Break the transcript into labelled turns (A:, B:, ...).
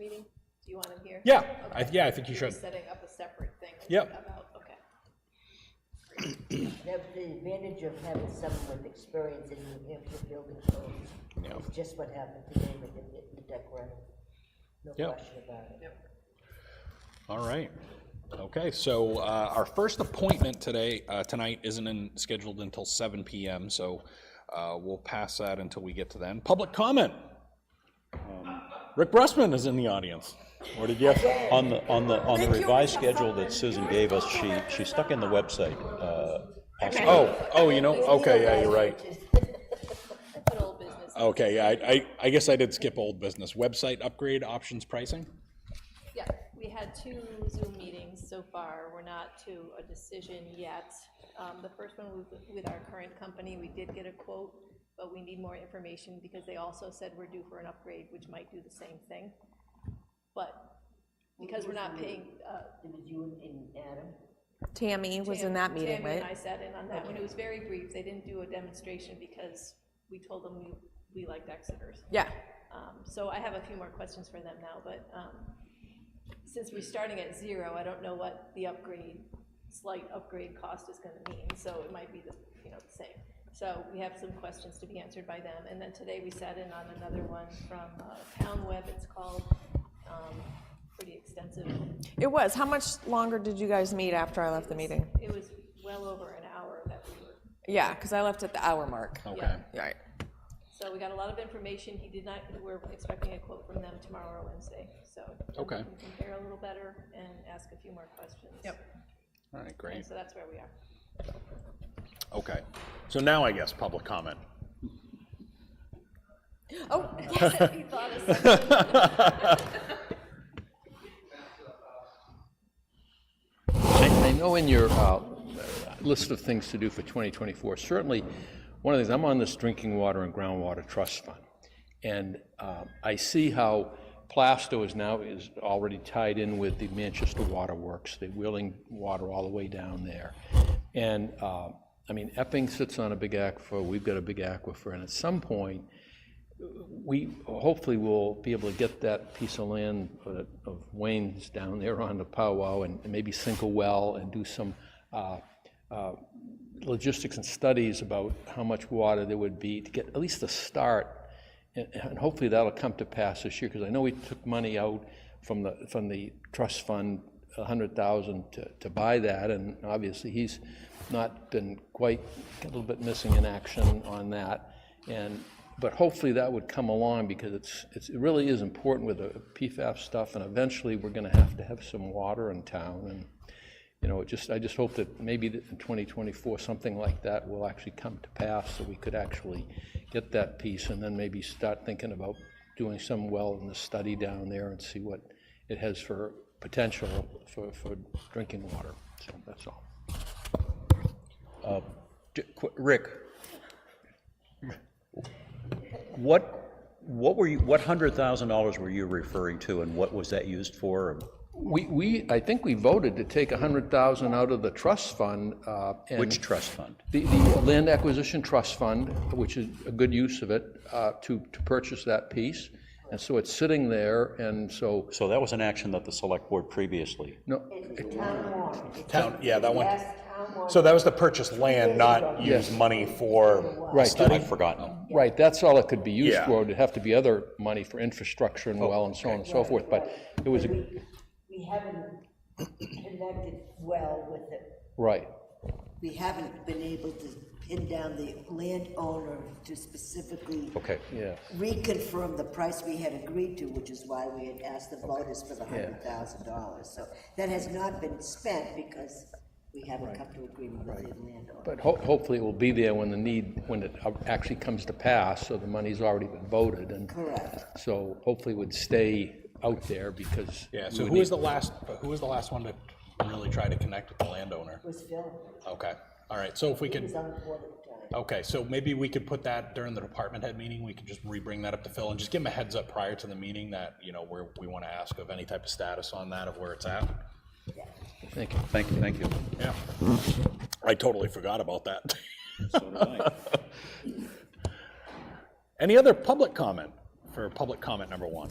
A: Do you want him here?
B: Yeah, I,
A: Okay.
B: yeah, I think you
A: You're
B: should.
A: setting up a separate thing.
B: Yep.
A: About, okay.
C: The the advantage of having someone with experience in New Hampshire building
B: Yeah.
C: codes is just what happened today with the, the deck running. No
B: Yeah.
C: question about it.
B: All right. Okay, so uh, our first appointment today, uh, tonight, isn't in- scheduled until 7 PM, so uh, we'll pass that until we get to then. Public comment. Um, Rick Brustman is in the audience.
D: Or did you, on the, on the, on the revised schedule that Susan gave us, she, she stuck in the website. uh, aspect.
B: Oh, oh, you know, okay, yeah, you're right.
A: Put old business.
B: Okay, I, I, I guess I did skip old business. Website upgrade, options pricing?
A: Yeah, we had two Zoom meetings so far. We're not to a decision yet. Um, The first one was with our current company. We did get a quote, but we need more information because they also said we're due for an upgrade, which might do the same thing. But because we're not paying, uh,
C: It was you and Adam,
E: Tammy was in that meeting,
A: Tammy and I
E: right?
A: sat in on that one. It was very brief. They didn't do a demonstration because we told them we, we liked Exeter's.
E: Yeah,
A: Um, So I have a few more questions for them now, but um, since we're starting at zero, I don't know what the upgrade, slight upgrade cost is gonna mean, so it might be the, you know, the same. So we have some questions to be answered by them, and then today we sat in on another one from uh, Town Web, it's called, um, pretty extensive.
E: it was. How much longer did you guys meet after I left the meeting?
A: It was well over an hour that we were
E: Yeah, because I left at the hour mark.
B: Okay.
E: Right.
A: So we got a lot of information, he did not, we're expecting a quote from them tomorrow or Wednesday, so.
B: Okay.
A: We can compare a little better and ask a few more questions. Yep.
B: All right, great.
A: So that's where we are.
B: Okay. So now I guess public comment.
E: Oh,
A: He thought of something.
F: I I know in your uh, list of things to do for 2024, certainly, one of the things, I'm on this Drinking Water and Groundwater Trust Fund, and uh, I see how Plasto is now, is already tied in with the Manchester Water Works, they're wheeling water all the way down there. And, uh, I mean, Epping sits on a big aquifer, we've got a big aquifer, and at some point, we hopefully will be able to get that piece of land uh, of Wayne's down there on the powwow and maybe sink a well and do some uh, uh, logistics and studies about how much water there would be to get at least a start. And and hopefully that'll come to pass this year, because I know we took money out from the, from the trust fund, a hundred thousand to, to buy that, and obviously he's not been quite, a little bit missing in action on that. And, but hopefully that would come along because it's, it's, it really is important with the PFAS stuff and eventually we're gonna have to have some water in town and, you know, it just, I just hope that maybe that in 2024, something like that will actually come to pass so we could actually get that piece and then maybe start thinking about doing some well in the study down there and see what it has for potential for, for drinking water. So that's all.
D: J- qu- Rick, what, what were you, what hundred thousand dollars were you referring to and what was that used for?
F: We, we, I think we voted to take 100,000 out of the trust fund. uh, and-
D: Which trust fund?
F: The, the Land Acquisition Trust Fund, which is a good use of it, uh, to, to purchase that piece. And so it's sitting there, and so,
D: So that was an action that the select board previously,
F: no,
C: it's town warrant. It's
B: Town, yeah, that one.
C: Yes, town warrant.
B: So that was to purchase land, not use money for,
F: right,
D: I've forgotten.
F: right, that's all it could be used
B: Yeah. Oh,
F: for. It'd have to be other money for infrastructure and well and so on and so forth, but it was, a
C: We, we haven't connected well with it.
F: right,
C: We haven't been able to pin down the landowner to specifically
D: Okay.
F: yeah.
C: reconfirm the price we had agreed to, which is why we had asked the voters for the hundred thousand dollars. So that has not been spent because we haven't come to agreement with the landowner.
F: But ho- hopefully it will be there when the need, when it actually comes to pass, so the money's already been voted, and
C: Correct.
F: so hopefully it would stay out there because.
B: yeah, so who was the last, who was the last one to really try to connect with the landowner?
C: It was Phil,
B: Okay, all right, so if we
C: he was
B: could,
C: on the board at the time.
B: okay, so maybe we could put that during the department head meeting, we could just re-bring that up to Phil and just give him a heads up prior to the meeting that, you know, where we want to ask of any type of status on that, of where it's at.
F: Thank you.
D: Thank you, thank you.
B: Yeah. I totally forgot about that. Any other public comment for public comment number one?